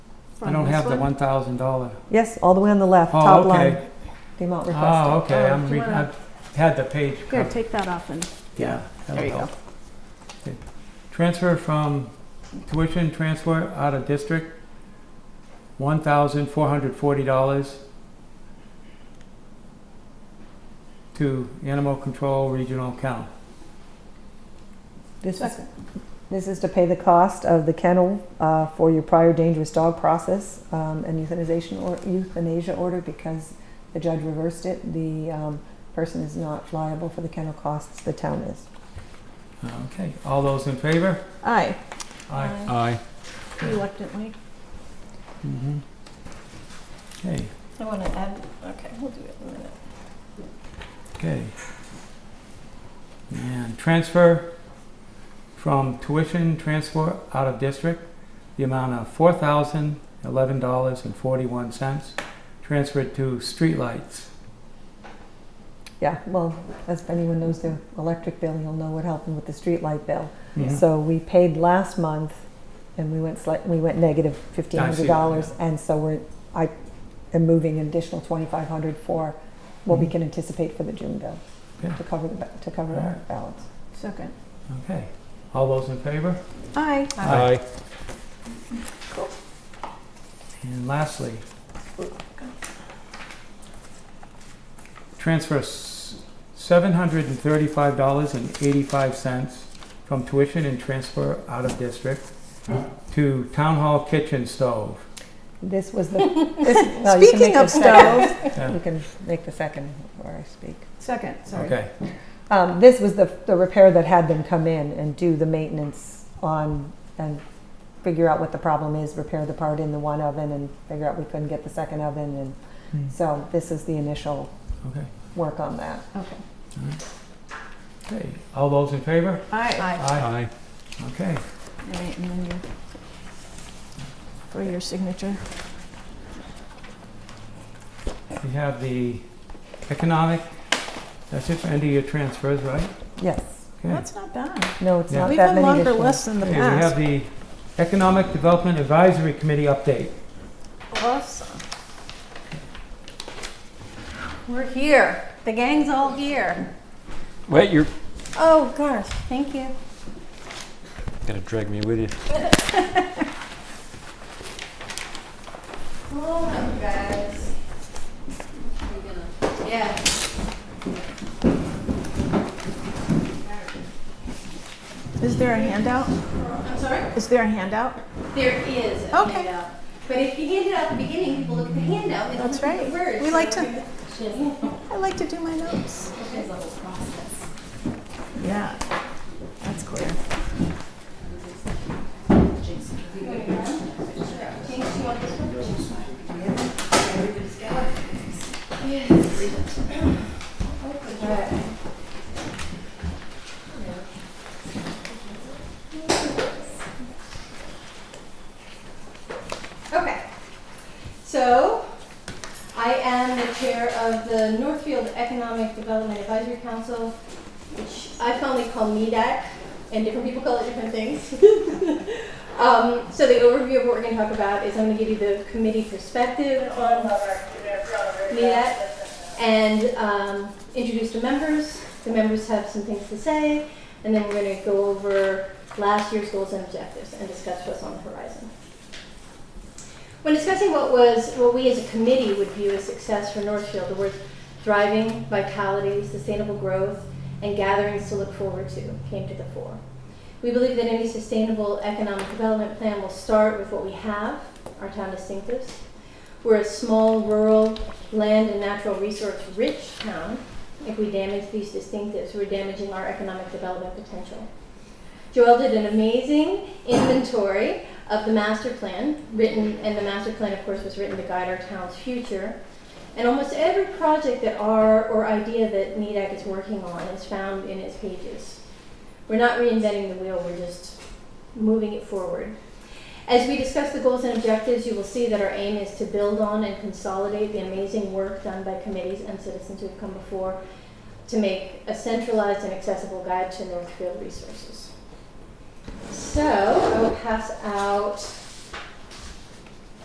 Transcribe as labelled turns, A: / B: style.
A: from
B: I don't
A: this
B: have the
A: one?
B: one thousand dollar.
C: Yes, all the way on the left,
B: Oh,
C: top
B: okay.
C: line, the amount
B: Oh,
C: requested.
B: okay,
A: Oh,
B: I'm,
A: do
B: re-
A: you wanna-
B: I've had the page.
A: Here,
B: covered.
A: take that off and,
B: Yeah. that'll
A: there you go.
B: help. Transfer from tuition transfer out of district, one thousand four hundred forty dollars to animal control regional account.
C: This is, this is to pay the cost of the kennel uh, for your prior dangerous dog process um, and euthanization or euthanasia order because the judge reversed it. The um, person is not liable for the kennel costs, the town is.
B: Okay, all those in favor?
C: Aye.
B: Aye.
D: Aye.
A: Reluctantly.
B: Mhm. Okay,
E: I want to add, okay, we'll do it in a minute.
B: okay. And transfer from tuition transfer out of district, the amount of four thousand eleven dollars and forty-one cents, transferred to streetlights.
C: Yeah, well, as if anyone knows their electric bill, you'll know what happened with the street light bill.
B: Mhm.
C: So we paid last month, and we went slight, we went negative fifteen hundred dollars, and so we're, I am moving an additional twenty-five hundred for what we
B: Mhm.
C: can anticipate for the June bill,
B: Yeah.
C: to cover the, ba- to cover our
B: Alright.
C: balance.
A: Second.
B: Okay, all those in favor?
A: Aye.
B: Aye. And lastly, transfer s- $735.85 from tuition and transfer out of district to town hall kitchen stove.
C: This was the, this, well, you
A: Speaking
C: can make the
A: of
C: second.
B: Yeah,
C: You can make the second before I speak.
A: Second, sorry.
B: Okay,
C: Um, this was the, the repair that had them come in and do the maintenance on and figure out what the problem is, repair the part in the one oven and figure out we couldn't get the second oven and
B: Hmm.
C: so this is the initial
B: okay,
C: work on that.
A: Okay.
B: okay. All those in favor?
A: Aye.
B: Aye.
D: Aye.
B: Okay,
E: All right, and then you, for your signature.
B: we have the economic, that's it for end of year transfers, right?
C: Yes.
B: Okay.
E: That's not bad.
C: No, it's
B: Yeah.
C: not
E: We've
C: that
E: had
C: many
E: longer
C: additional-
E: lists in the
B: Okay, we have
E: past.
B: the Economic Development Advisory Committee update.
A: Awesome. We're here. The gang's all here.
D: Wait, you're
A: Oh, gosh, thank you.
D: gonna drag me with you.
A: Hold on, guys. Yeah.
E: Is there a handout?
F: I'm sorry?
E: Is there a handout?
F: There is a
E: Okay.
F: handout. But if you hand it out at the beginning, people look at the handout and
E: That's
F: look at the
E: right.
F: words.
E: We like to-
F: to.
E: I like to do my notes.
F: There's a whole process.
E: Yeah, that's clear.
F: Jinx, you want this one? Okay, so I am the chair of the Northfield Economic Development Advisory Council, which I fondly call NEDAC, and different people call it different things. um, so the overview of what we're going to talk about is I'm going to give you the committee perspective on NEDAC and um, introduce the members. The members have some things to say, and then we're going to go over last year's goals and objectives and discuss what's on the horizon. When discussing what was what we as a committee would view as success for Northfield, the words thriving, vitality, sustainable growth, and gatherings to look forward to came to the fore. We believe that any sustainable economic development plan will start with what we have, our town distinctives. We're a small, rural, land and natural resource rich town. If we damage these distinctives, we're damaging our economic development potential. Joel did an amazing inventory of the master plan, written, and the master plan, of course, was written to guide our town's future. And almost every project that our, or idea that NEDAC is working on is found in its pages. We're not reinventing the wheel, we're just moving it forward. As we discuss the goals and objectives, you will see that our aim is to build on and consolidate the amazing work done by committees and citizens who have come before to make a centralized and accessible guide to Northfield resources. So I will pass out